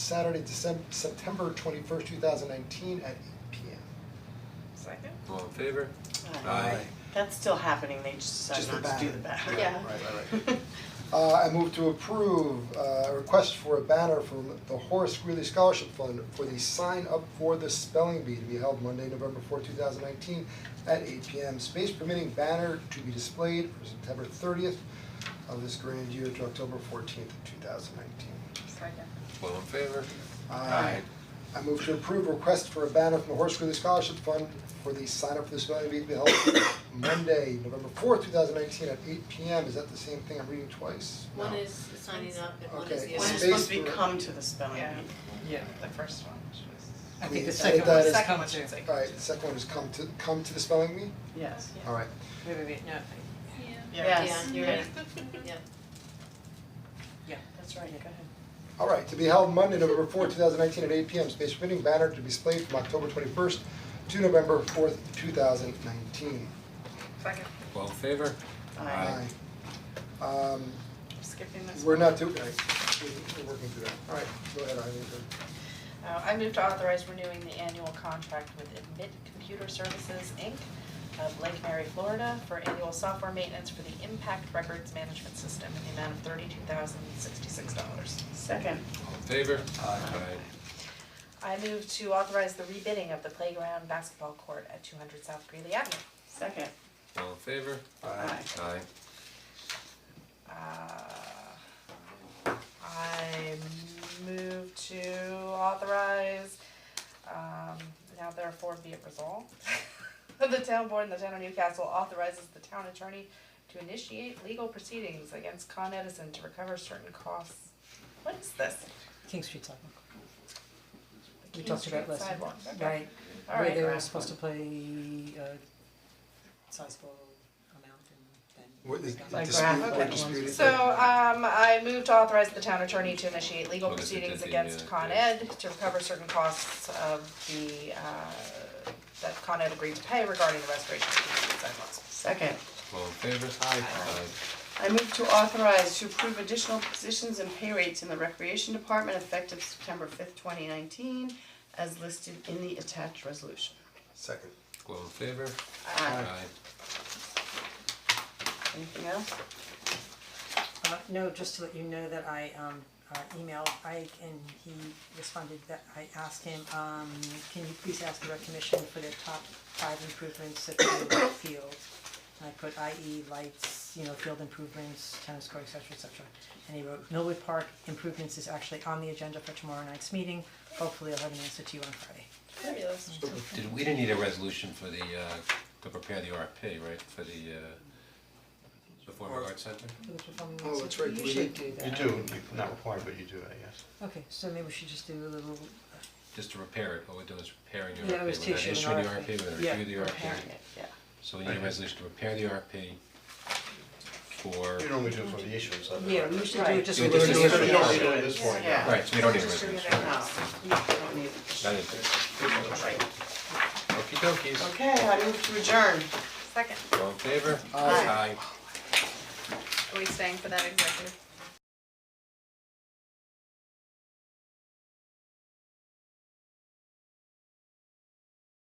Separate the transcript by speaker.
Speaker 1: Saturday, December, September twenty-first, two thousand nineteen at eight P M.
Speaker 2: Second.
Speaker 3: All in favor?
Speaker 1: Aye.
Speaker 2: That's still happening, they just
Speaker 1: Just the
Speaker 2: decided not to do the
Speaker 1: back.
Speaker 2: back.
Speaker 1: Right,
Speaker 4: Yeah.
Speaker 1: right, Uh, I move to approve uh, a request for a banner from the Horace Greeley Scholarship Fund for the sign up for the spelling bee to be held Monday, November fourth, two thousand nineteen at eight P M. Space permitting banner to be displayed for September thirtieth of this grand year to October fourteenth, two thousand nineteen.
Speaker 4: Second.
Speaker 3: All in favor?
Speaker 1: Aye. I move to approve request for a banner from the Horace Greeley Scholarship Fund for the sign up for the spelling bee to be held Monday, November fourth, two thousand nineteen at eight P M. Is that the same thing I'm reading twice?
Speaker 5: One
Speaker 1: No.
Speaker 5: is signing up and one is
Speaker 1: Okay.
Speaker 5: the
Speaker 2: When
Speaker 5: other.
Speaker 2: it's
Speaker 1: Space
Speaker 2: supposed to be
Speaker 1: for-
Speaker 2: come to the spelling
Speaker 6: Yeah.
Speaker 2: bee.
Speaker 6: Yeah, the first one, which was.
Speaker 1: I think the second one is
Speaker 6: Second
Speaker 1: come
Speaker 6: one should say.
Speaker 1: Alright, the second one is come to, come to the spelling bee?
Speaker 2: Yes.
Speaker 1: Alright,
Speaker 6: Wait, wait, wait, no,
Speaker 2: Yeah.
Speaker 5: Yeah, you're right, yeah.
Speaker 2: That's right, go ahead.
Speaker 1: alright, to be held Monday, November fourth, two thousand nineteen at eight P M, space permitting, banner to be displayed from October twenty first to November fourth, two thousand nineteen.
Speaker 6: Second.
Speaker 3: All in favor?
Speaker 2: Aye.
Speaker 1: Um,
Speaker 6: Skipping this
Speaker 1: we're
Speaker 6: one.
Speaker 1: not doing, we're working through that, alright, go ahead, Eileen.
Speaker 6: Uh, I move to authorize renewing the annual contract with Admit Computer Services, Inc. of Lake Mary, Florida for annual software maintenance for the Impact Records Management System in the amount of thirty-two thousand sixty-six dollars.
Speaker 2: Second.
Speaker 3: All in favor?
Speaker 1: Aye.
Speaker 6: I move to authorize the rebidding of the playground basketball court at two hundred South Greeley Avenue.
Speaker 2: Second.
Speaker 3: All in favor?
Speaker 2: Aye.
Speaker 3: Aye.
Speaker 6: Uh, I move to authorize, um, now therefore be it resolved. The town board in the town of Newcastle authorizes the town attorney to initiate legal proceedings against Con Edison to recover certain costs. What is this?
Speaker 7: King Street sidewalk.
Speaker 6: The
Speaker 7: We
Speaker 6: King
Speaker 7: talked about
Speaker 6: Street
Speaker 7: last time.
Speaker 6: sidewalk, okay.
Speaker 7: Right,
Speaker 6: All
Speaker 7: where they
Speaker 6: right.
Speaker 7: were supposed to play a sizable amount and then.
Speaker 1: What is,
Speaker 7: Like
Speaker 1: dispute,
Speaker 6: graphic
Speaker 1: or
Speaker 6: ones.
Speaker 1: disputed?
Speaker 6: So, um, I move to authorize the town attorney to initiate legal
Speaker 3: Well, this is
Speaker 6: proceedings
Speaker 3: the-
Speaker 6: against
Speaker 3: yeah,
Speaker 6: Con
Speaker 3: yeah.
Speaker 6: Ed to recover certain costs of the, uh, that Con Ed agreed to pay regarding the restoration of the street sidewalks.
Speaker 2: Second.
Speaker 3: All in favor?
Speaker 1: Aye.
Speaker 3: Aye.
Speaker 2: I move to authorize to approve additional positions and pay rates in the Recreation Department effective September fifth, twenty nineteen, as listed in the attached resolution.
Speaker 1: Second.
Speaker 3: All in favor?
Speaker 2: Aye. Anything else?
Speaker 7: Uh, no, just to let you know that I um uh emailed Ike and he responded that I asked him, um, can you please ask the rec commission for their top five improvements at the field? And I put IE lights, you know, field improvements, tennis court, et cetera, et cetera. And he wrote, Millwood Park improvements is actually on the agenda for tomorrow night's meeting, hopefully I'll have an answer to you on Friday.
Speaker 6: Fabulous.
Speaker 3: Did, we didn't need a resolution for the, uh, to prepare the RFP, right, for the, uh, the former arts center?
Speaker 7: It was performing
Speaker 1: Oh,
Speaker 7: arts,
Speaker 1: that's right,
Speaker 7: You
Speaker 1: we
Speaker 7: should
Speaker 1: did.
Speaker 7: do that.
Speaker 8: You do, you're not required, but you do, I guess.
Speaker 7: Okay, so maybe we should just do a little,
Speaker 3: Just to repair it, all we're doing is repairing the RFP,
Speaker 7: Yeah, it
Speaker 3: we're
Speaker 7: was
Speaker 3: not
Speaker 7: to issue an
Speaker 3: issuing the
Speaker 7: RFP.
Speaker 3: RFP, we're
Speaker 7: Yeah,
Speaker 3: gonna review the RFP.
Speaker 7: preparing
Speaker 2: Yeah, yeah.
Speaker 3: So we need a resolution to repair the RFP for.
Speaker 8: You normally do it for the issuance of it.
Speaker 7: yeah,
Speaker 8: right?
Speaker 7: we
Speaker 8: You
Speaker 7: usually do
Speaker 2: Right.
Speaker 7: it just.
Speaker 3: Yeah,
Speaker 7: a little
Speaker 3: just-
Speaker 7: bit.
Speaker 8: don't need it at this point, yeah.
Speaker 3: Right, so we don't need a
Speaker 6: Distribute
Speaker 3: resolution,
Speaker 6: it out.
Speaker 3: right,
Speaker 2: No, Oh, you don't need it.
Speaker 3: that is it. Okey dokeys.
Speaker 2: Okay, I move to adjourn.
Speaker 6: Second,
Speaker 3: All in favor?
Speaker 2: Aye.
Speaker 3: Aye.
Speaker 6: are we staying for that executive?